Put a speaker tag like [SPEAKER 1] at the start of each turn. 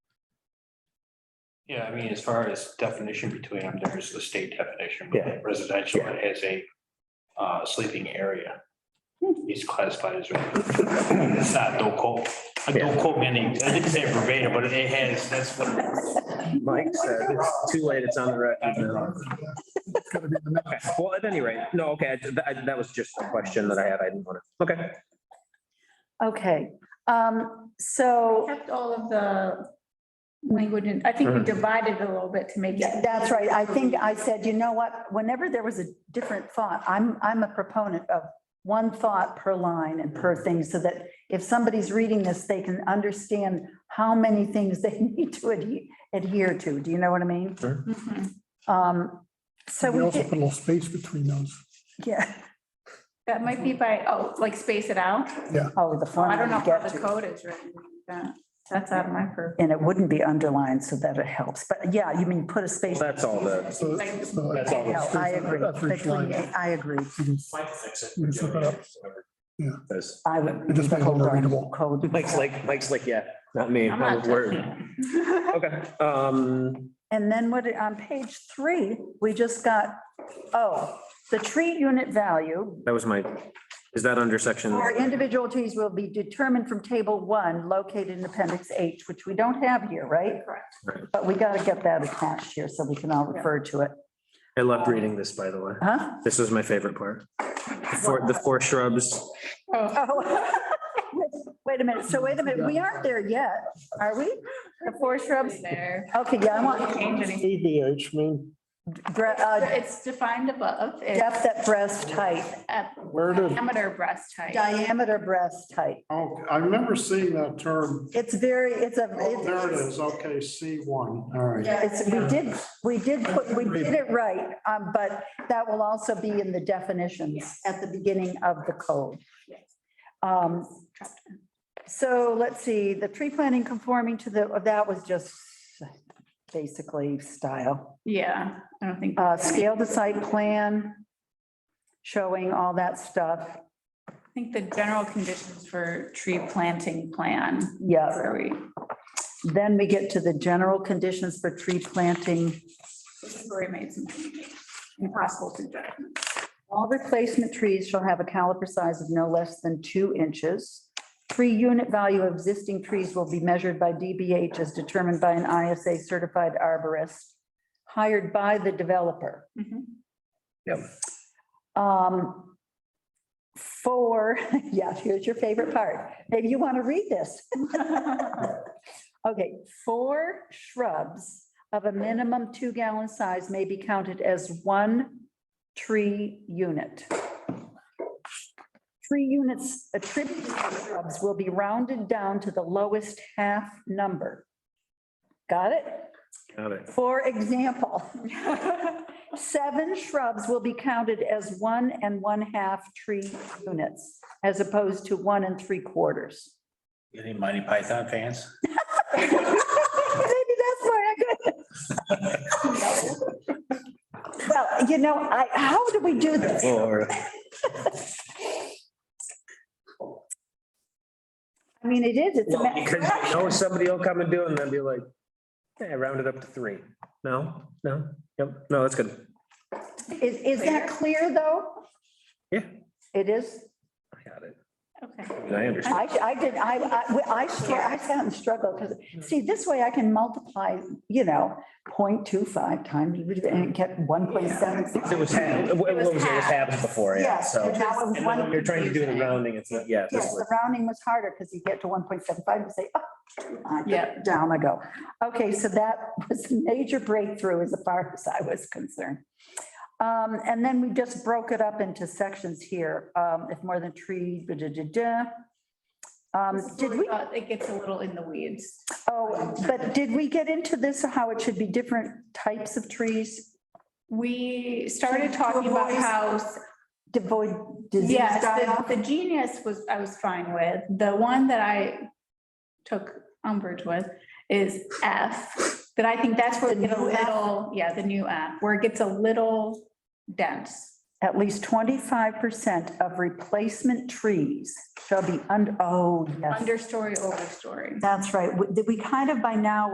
[SPEAKER 1] Yeah, I mean, as far as definition between them, there's the state definition. but
[SPEAKER 2] Yeah.
[SPEAKER 1] Residential as a uh, sleeping area.
[SPEAKER 2] Hmm.
[SPEAKER 1] It's classified as, it's not, don't quote, uh, don't quote me, on the- I didn't say it verbatim, but it has, that's what. it is.
[SPEAKER 2] Mike said, it's too late, it's on the record now. Okay, Well, at any rate, no, okay, I- that, I- that was just a question that I had, I didn't want to, okay.
[SPEAKER 3] Okay, um, so
[SPEAKER 4] kept all of the language, and I think we
[SPEAKER 2] Mhm.
[SPEAKER 4] divided it a little bit to make
[SPEAKER 3] Yeah,
[SPEAKER 4] it.
[SPEAKER 3] that's right. I think I said, you know what, whenever there was a different thought, I'm, I'm a proponent of one thought per line and per thing, so that if somebody's reading this, they can understand how many things they need to adhe- adhere to. Do you know what I mean?
[SPEAKER 4] Mhm.
[SPEAKER 3] Um, so
[SPEAKER 5] We
[SPEAKER 3] we
[SPEAKER 5] also put a
[SPEAKER 3] did,
[SPEAKER 5] little space between those.
[SPEAKER 3] yeah,
[SPEAKER 4] That might be by, oh, like space it out.
[SPEAKER 3] oh, the font.
[SPEAKER 4] I don't know
[SPEAKER 3] you
[SPEAKER 4] how
[SPEAKER 3] get
[SPEAKER 4] the
[SPEAKER 3] to.
[SPEAKER 4] code is written. That- That's out of my purview.
[SPEAKER 3] And it wouldn't be underlined, so that it helps. But yeah, you mean put a
[SPEAKER 2] Well,
[SPEAKER 3] space.
[SPEAKER 2] That's all the,
[SPEAKER 5] So,
[SPEAKER 4] Like-
[SPEAKER 5] so
[SPEAKER 2] That's all.
[SPEAKER 3] Yeah, I agree.
[SPEAKER 5] After each line.
[SPEAKER 3] Between- I agree.
[SPEAKER 5] You can- you can flip it up.
[SPEAKER 2] that's-
[SPEAKER 3] I would.
[SPEAKER 5] It just makes it more
[SPEAKER 3] Hold on,
[SPEAKER 5] readable.
[SPEAKER 3] Code.
[SPEAKER 2] Mike's like, Mike's like, yeah, not me.
[SPEAKER 4] I'm not
[SPEAKER 2] Word.
[SPEAKER 4] touching it.
[SPEAKER 2] Okay, um,
[SPEAKER 3] And then what, on page three, we just got, oh, the tree unit value
[SPEAKER 2] that was my, is that under section?
[SPEAKER 3] for individual trees will be determined from table one located in appendix H, which we don't have here, right?
[SPEAKER 4] Correct.
[SPEAKER 2] Right.
[SPEAKER 3] But we got to get that attached here so we can all refer to it.
[SPEAKER 2] I loved reading this, by the way.
[SPEAKER 3] Huh?
[SPEAKER 2] This was my favorite part. For the four shrubs.
[SPEAKER 4] Oh,
[SPEAKER 3] Oh, Wait a minute. So wait a minute. We aren't there yet, are we?
[SPEAKER 4] The four shrubs there.
[SPEAKER 3] Okay, yeah, I want
[SPEAKER 4] Change anything.
[SPEAKER 5] ABH, mean,
[SPEAKER 3] bre- uh,
[SPEAKER 4] It's defined above. It's
[SPEAKER 3] depth at breast height,
[SPEAKER 4] at
[SPEAKER 5] where did,
[SPEAKER 4] Diameter breast height.
[SPEAKER 3] diameter breast height.
[SPEAKER 5] oh, I remember seeing that term.
[SPEAKER 3] It's very, it's a.
[SPEAKER 5] Oh, there it is. Okay, C1. All right.
[SPEAKER 3] Yeah, it's, we did, we did, put we did it right, um, but that will also be in the definitions at the beginning of the code. Um, so let's see, the tree planting conforming to the, oh, that was just basically style.
[SPEAKER 4] Yeah, I don't think.
[SPEAKER 3] Uh, scale the site plan, showing all that stuff.
[SPEAKER 4] I think the general conditions for tree planting plan.
[SPEAKER 3] Yeah,
[SPEAKER 4] Where we,
[SPEAKER 3] then we get to the general conditions for tree planting.
[SPEAKER 4] where we made some impossible suggestions.
[SPEAKER 3] All replacement trees shall have a caliper size of no less than two inches. Tree unit value of existing trees will be measured by DBH as determined by an ISA certified arborist hired by the developer.
[SPEAKER 4] Mhm.
[SPEAKER 3] Um, Four, yeah, here's your favorite part. Maybe you want to read this. Okay, four shrubs of a minimum two gallon size may be counted as one tree unit. Tree units attributed to shrubs will be rounded down to the lowest half number. Got it?
[SPEAKER 2] Got it.
[SPEAKER 3] For example, seven shrubs will be counted as one and one-half tree units as opposed to one and three quarters.
[SPEAKER 1] Any Monty Python fans?
[SPEAKER 3] Maybe that's where I could. Well, you know, I, how do we do this?
[SPEAKER 2] Or
[SPEAKER 3] I mean, it is, it's a.
[SPEAKER 2] Well,
[SPEAKER 3] ma-
[SPEAKER 2] Because you know somebody will come and do it and then be like, hey, I rounded up to three. No, no, yep, no, that's good.
[SPEAKER 3] Is, is that clear, though?
[SPEAKER 2] Yeah.
[SPEAKER 3] It is?
[SPEAKER 2] I got it.
[SPEAKER 4] Okay.
[SPEAKER 2] I understand.
[SPEAKER 3] I, I did, I, I, I, str- I found struggle,
[SPEAKER 2] Mm-hmm.
[SPEAKER 3] because, see, this way I can multiply, you know, 0.25 times, and get one point seven.
[SPEAKER 2] It was, what what was it, it was halves before, yeah,
[SPEAKER 3] Yes,
[SPEAKER 2] so.
[SPEAKER 3] and that was
[SPEAKER 2] And then when
[SPEAKER 3] one,
[SPEAKER 2] you're trying to do the rounding, it's not, yeah. this
[SPEAKER 3] yes, the
[SPEAKER 2] was-
[SPEAKER 3] rounding was harder, because you get to one point seven five, and say, oh, I get
[SPEAKER 4] Yeah.
[SPEAKER 3] down I go. Okay, so that was a major breakthrough as far as I was concerned. Um, and then we just broke it up into sections here, um, if more than tree, da, da, da, da. Um,
[SPEAKER 4] This is
[SPEAKER 3] did
[SPEAKER 4] where
[SPEAKER 3] we,
[SPEAKER 4] thought It gets a little in the weeds.
[SPEAKER 3] oh, but did we get into this, how it should be different types of trees?
[SPEAKER 4] We started
[SPEAKER 3] To
[SPEAKER 4] talking about
[SPEAKER 3] avoid-
[SPEAKER 4] how,
[SPEAKER 3] Devoid disease
[SPEAKER 4] yes,
[SPEAKER 3] die-off?
[SPEAKER 4] the- the genius was, I was fine with. The one that I took umbrage with is F. That I think that's where it
[SPEAKER 3] The
[SPEAKER 4] gets a
[SPEAKER 3] new F?
[SPEAKER 4] little, yeah, the new F, where it gets a little dense.
[SPEAKER 3] At least twenty-five percent of replacement trees shall be under, oh, yes.
[SPEAKER 4] Understory, overstory.
[SPEAKER 3] That's right. We- Did we kind of by now